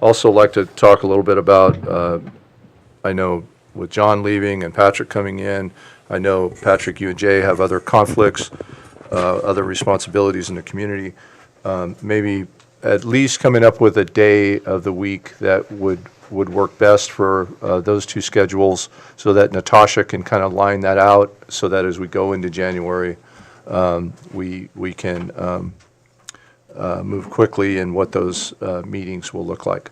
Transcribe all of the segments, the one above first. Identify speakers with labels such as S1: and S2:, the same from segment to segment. S1: Also like to talk a little bit about, uh, I know with John leaving and Patrick coming in, I know, Patrick, you and Jay have other conflicts, uh, other responsibilities in the community. Um, Maybe at least coming up with a day of the week that would, would work best for uh, those two schedules so that Natasha can kind of line that out so that as we go into January, um, we, we can um, uh, move quickly in what those uh, meetings will look like.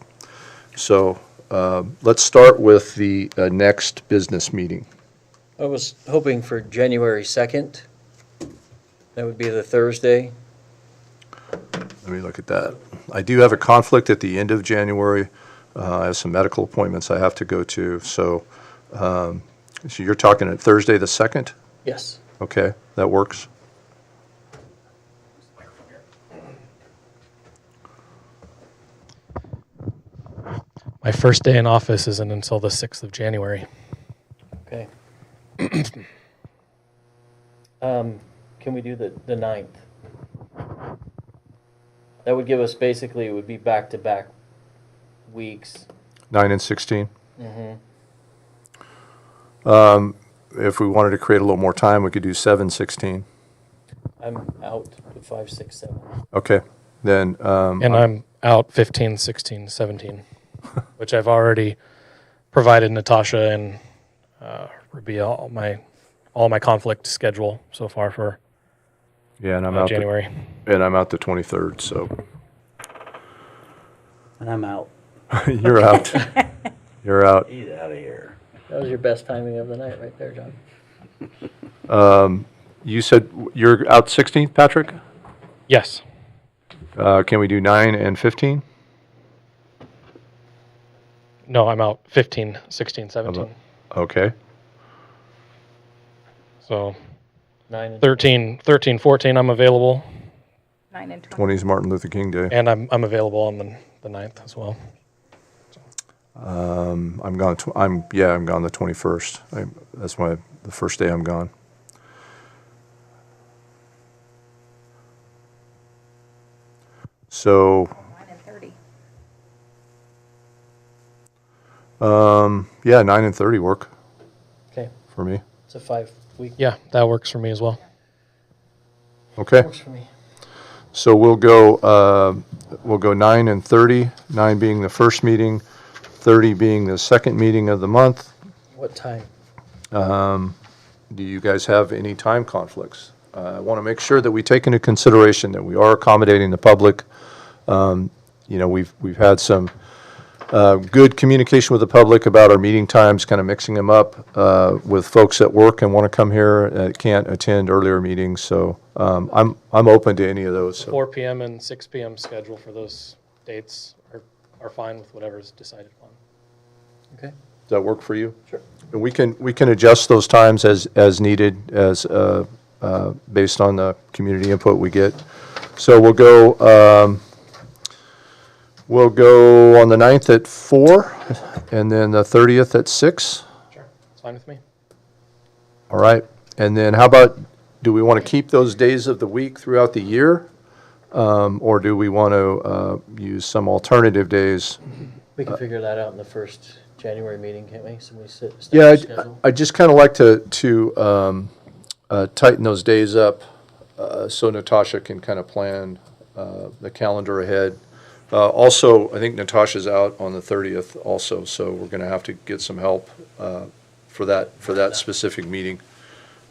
S1: So um, let's start with the uh, next business meeting.
S2: I was hoping for January 2nd. That would be the Thursday.
S1: Let me look at that. I do have a conflict at the end of January. Uh, I have some medical appointments I have to go to, so, um, so you're talking at Thursday, the 2nd?
S2: Yes.
S1: Okay, that works.
S3: My first day in office isn't until the 6th of January.
S2: Okay. Um, Can we do the, the 9th? That would give us, basically, it would be back-to-back weeks.
S1: 9 and 16?
S2: Mhm.
S1: Um, If we wanted to create a little more time, we could do 7, 16.
S2: I'm out to 5, 6, 7.
S1: Okay, then, um,
S3: And uh, I'm out 15, 16, 17, which I've already provided Natasha and uh, Rabia all my all my conflict schedule so far for
S1: yeah, and I'm
S3: uh,
S1: out, the-
S3: January.
S1: and I'm out the 23rd, so
S4: And I'm out.
S1: you're out. You're out.
S4: Get out of here.
S2: That was your best timing of the night, right there, John.
S1: You said you're out 16th, Patrick?
S3: Yes.
S1: Uh, Can we do 9 and 15?
S3: No, I'm out 15, 16, 17.
S1: Okay.
S3: So
S2: 9 and
S3: 13, 13, 14, I'm available.
S5: Nine and 20.
S1: 20 is Martin Luther King Day.
S3: And I'm, I'm available on the, the 9th as well.
S1: I'm gone. Tw- I'm yeah. I'm gone the 21st. I, that's my the first day I'm gone. So
S5: Nine and 30.
S1: yeah, 9 and 30 work
S2: Okay,
S1: for me.
S2: it's a five-week.
S3: Yeah, that works for me as well.
S1: Okay.
S2: Works for me.
S1: So we'll go. Uh, we'll go 9 and 30. 9 being the first meeting, 30 being the second meeting of the month.
S2: What time?
S1: Do you guys have any time conflicts? Uh, I want to make sure that we take into consideration that we are accommodating the public. Um, You know, we've, we've had some uh, good communication with the public about our meeting times, kind of mixing them up uh, with folks at work and want to come here, uh, can't attend earlier meetings, so um, I'm, I'm open to any of those. so-
S3: 4 p.m. and 6 p.m. schedule for those dates are, are fine with whatever's decided upon.
S2: Okay.
S1: Does that work for you?
S2: Sure.
S1: And we can, we can adjust those times as, as needed, as, uh, uh, based on the community input we get. So we'll go, um, we'll go on the 9th at four, and then the 30th at six.
S3: Sure. It's fine with me.
S1: All right. And then how about, do we want to keep those days of the week throughout the year? Um, Or do we want to uh, use some alternative days?
S2: We can figure that out in the first January meeting, can't we? Somebody sit,
S1: Yeah,
S2: start the
S1: I'd-
S2: schedule.
S1: I just kind of like to, to um, uh, tighten those days up uh, so Natasha can kind of plan uh, the calendar ahead. Uh, Also, I think Natasha's out on the 30th also, so we're going to have to get some help uh, for that, for that specific meeting.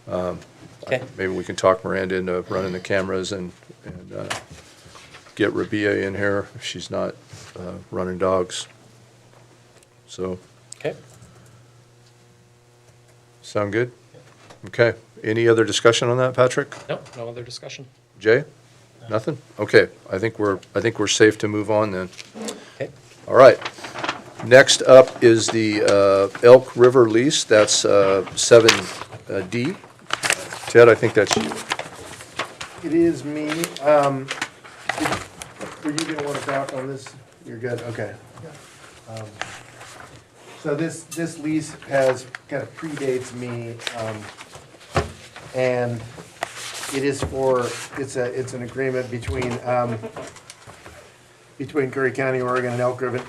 S2: Okay.
S1: Maybe we can talk Miranda into running the cameras and, and uh, get Rabia in here if she's not uh, running dogs. So,
S2: Okay.
S1: sound good? Okay. Any other discussion on that, Patrick?
S3: No, no other discussion.
S1: Jay? Nothing? Okay, I think we're, I think we're safe to move on then.
S2: Okay.
S1: All right. Next up is the uh, Elk River lease, that's uh, seven uh, D. Ted, I think that's you.
S6: It is me. Um, did- were you gonna wanna back on this? You're good, okay. Um, So this, this lease has, kind of predates me, um, and it is for, it's a, it's an agreement between, um, between Curry County, Oregon and Elk River,